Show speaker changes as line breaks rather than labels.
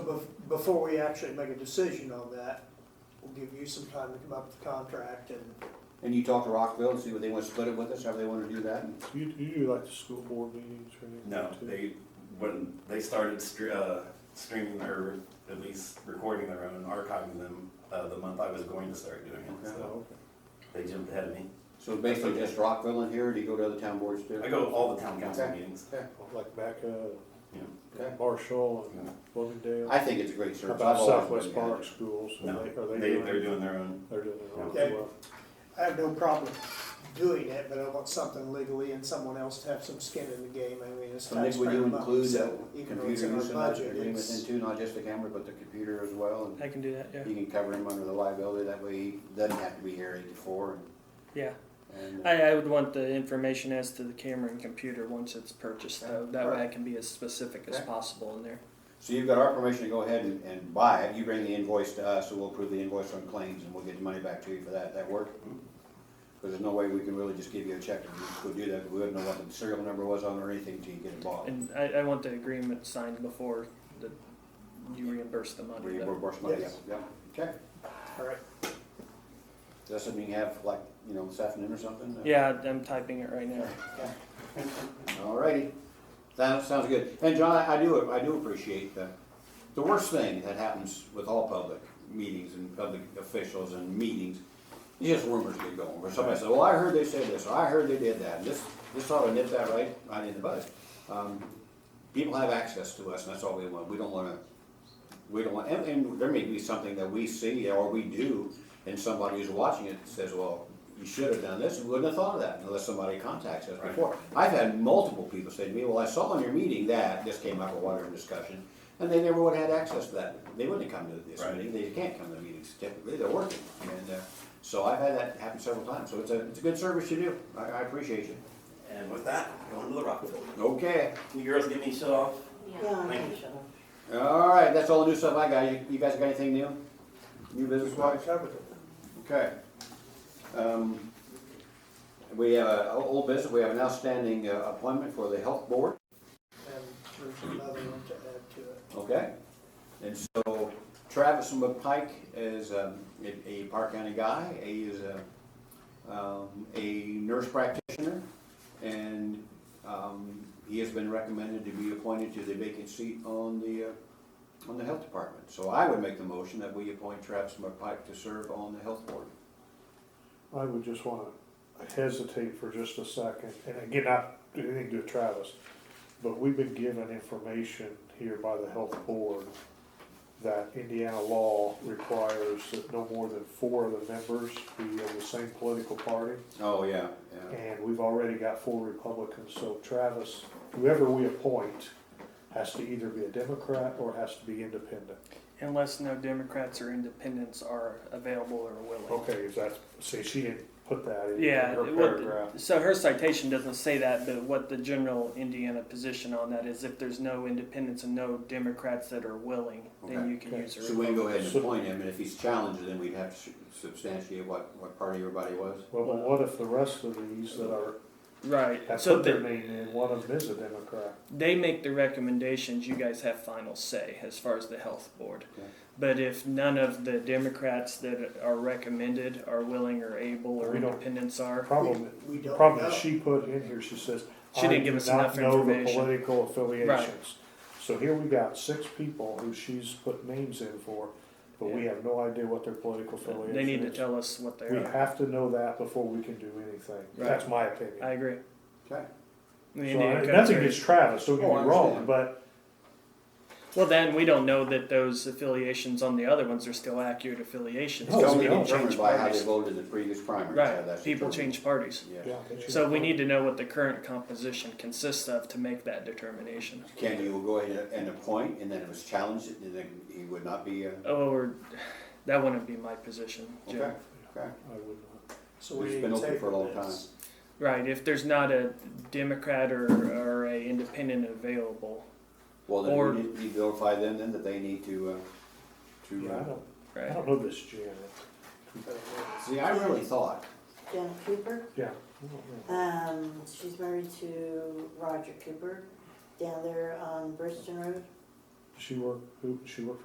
bef- before we actually make a decision on that, we'll give you some time to come up with the contract and,
And you talk to Rockville and see what they want to split it with us, however they want to do that. and-
You, you do like the school board meetings or anything?
No,
too?
they, when they started stre- uh, streaming or at least recording their own, archiving them, uh, the month I was going to start doing it,
Oh,
so
okay.
they jumped ahead of me.
So basically just Rockville in here, or do you go to other town boards too?
I go to all the town council
Okay.
meetings,
Okay.
Like back, uh,
you know.
Okay.
Marshall
Yeah.
and Bloomingdale.
I think it's a great
How
service.
About
I've always
Southwest
been against
Park Schools, are
No,
they, are
they,
they
they're
doing?
doing their own.
They're doing it all
Yeah.
well.
I have no problem doing it, but I want something legally and someone else to have some skin in the game, I mean, it's
it. And Nick, would
taxpayer
you
money,
include
so
that
even though it's in
computer
our
use in that
budget,
agreement then
it's.
too, not just the camera, but the computer as well? and
I can do that, yeah.
You can cover him under the liability, that way he doesn't have to be here eighty-four
Yeah.
and, and, uh,
I, I would want the information as to the camera and computer once it's purchased, though. That way I can be as specific as
Okay.
possible in there.
so you've got our permission to go ahead and, and buy it, you bring the invoice to us, and we'll approve the invoice on claims, and we'll get the money back to you for that, that work? Cause there's no way we can really just give you a check and just go do that, we wouldn't know what the serial number was on or anything till you get it bought.
And I, I want the agreement signed before the, you reimburse the money.
We
though.
reimburse money, yeah,
Yes.
yeah, okay,
All right,
is that something you have like, you know, this afternoon or something?
Yeah, I'm typing it right now.
Alrighty, that sounds good. And John, I I do, I do appreciate the, the worst thing that happens with all public meetings and public officials and meetings, is just rumors get going, where somebody says, well, I heard they said this, or I heard they did that, and this, this ought to nip that right, right in the bud. Um, People have access to us, and that's all we want. We don't wanna, we don't want, and, and there may be something that we see or we do, and somebody who's watching it says, well, you should have done this, and we wouldn't have thought of that unless somebody contacts us
Right.
before. I've had multiple people say to me, well, I saw in your meeting that, this came up a water discussion, and they never would have had access to that. They wouldn't have come to this
Right.
meeting, they can't come to the meetings typically, they're working. And, uh, so I've had that happen several times, so it's a, it's a good service you do. I, I appreciate you.
And with that, going to the Rockville.
Okay.
Can you girls give me shut off?
Yeah.
Thank you.
All right, that's all the new stuff I got. You, you guys got anything new? New business
I
wise?
covered it.
Okay. Um, We have a o- old business, we have an outstanding uh, appointment for the health board,
and there's another one to add to it.
okay? And so Travis McPike is um, a a Park County guy, he is a, um, a nurse practitioner, and um, he has been recommended to be appointed to the vacant seat on the, uh, on the health department. So I would make the motion that we appoint Travis McPike to serve on the health board.
I would just wanna hesitate for just a second, and again, not do anything to Travis, but we've been given information here by the health board that Indiana law requires that no more than four of the members be of the same political party.
Oh, yeah, yeah.
And we've already got four Republicans, so Travis, whoever we appoint, has to either be a Democrat or has to be independent.
Unless no Democrats or independents are available or willing.
Okay, if that's, see, she didn't put that in
Yeah,
her
it would-
paragraph.
So her citation doesn't say that, but what the general Indiana position on that is if there's no independents and no Democrats that are willing,
Okay.
then you can
Okay.
use a
So we can go ahead and
So-
appoint him, and if he's challenged, then we'd have to substantiate what, what party everybody was.
Well, but what if the rest of these that are,
Right.
have
so
put their
the-
name in, one of them is a Democrat?
they make the recommendations you guys have final say as far as the health board
Okay.
but if none of the democrats that are recommended are willing or able or
We don't-
independents are
Problem,
We don't
problem
know.
that she put in here, she says,
She didn't give us enough
I do not know the
information."
political
Right.
affiliations. So here we got six people who she's put names in for, but we
Yeah.
have no idea what their political affiliation is.
they need to tell us what they
We
are
have to know that before we can do anything. That's my opinion.
i agree
Okay.
The
So I-
Indiana Code
Nothing
says-
against Travis, don't get
Oh, I
me wrong,
understand.
but
well then we don't know that those affiliations on the other ones are still accurate affiliations
It's
No,
because
only
we
we
don't.
can
determined
change
by how they
parties
voted in the previous primary. so
right
that's
people
determined.
change parties
Yeah.
yeah.
so we need to know what the current composition consists of to make that determination
Can you go ahead and appoint, and then if it's challenged, and then he would not be, uh,
oh or that wouldn't be my position Jim.
okay, okay.
I would not.
So we
It's
need
been
to
open for a long
table this.
Right, if there's not a Democrat or, or a independent available,
Well,
Or-
then we need to notify them then that they need to, uh, to,
Yeah, I
uh,
don't, I
right?
don't know this Janet.
see, I really thought,
Janet Cooper,
Yeah. I don't know.
um, she's married to Roger Cooper down there on Burston Road.
She work, who, she work